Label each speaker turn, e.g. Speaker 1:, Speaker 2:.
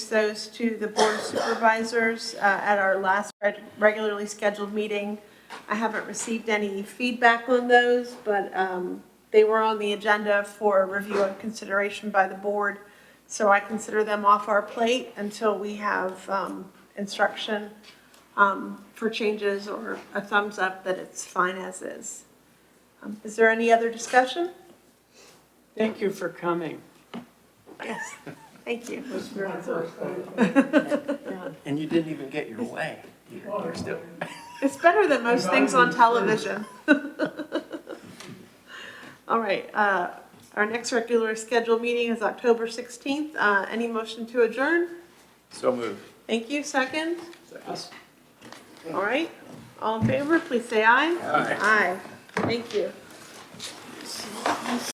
Speaker 1: those to the Board of Supervisors uh, at our last reg- regularly scheduled meeting. I haven't received any feedback on those, but um, they were on the agenda for review and consideration by the board. So I consider them off our plate until we have um, instruction um, for changes or a thumbs up that it's fine as is. Um, Is there any other discussion?
Speaker 2: Thank you for coming.
Speaker 1: Yes, thank you.
Speaker 3: And you didn't even get your way. You're you're still.
Speaker 1: It's better than most things on television. All right, uh, our next regular scheduled meeting is October 16th. Uh, Any motion to adjourn?
Speaker 3: So moved.
Speaker 1: Thank you, second. All right, all in favor, please say aye. Aye. Thank you.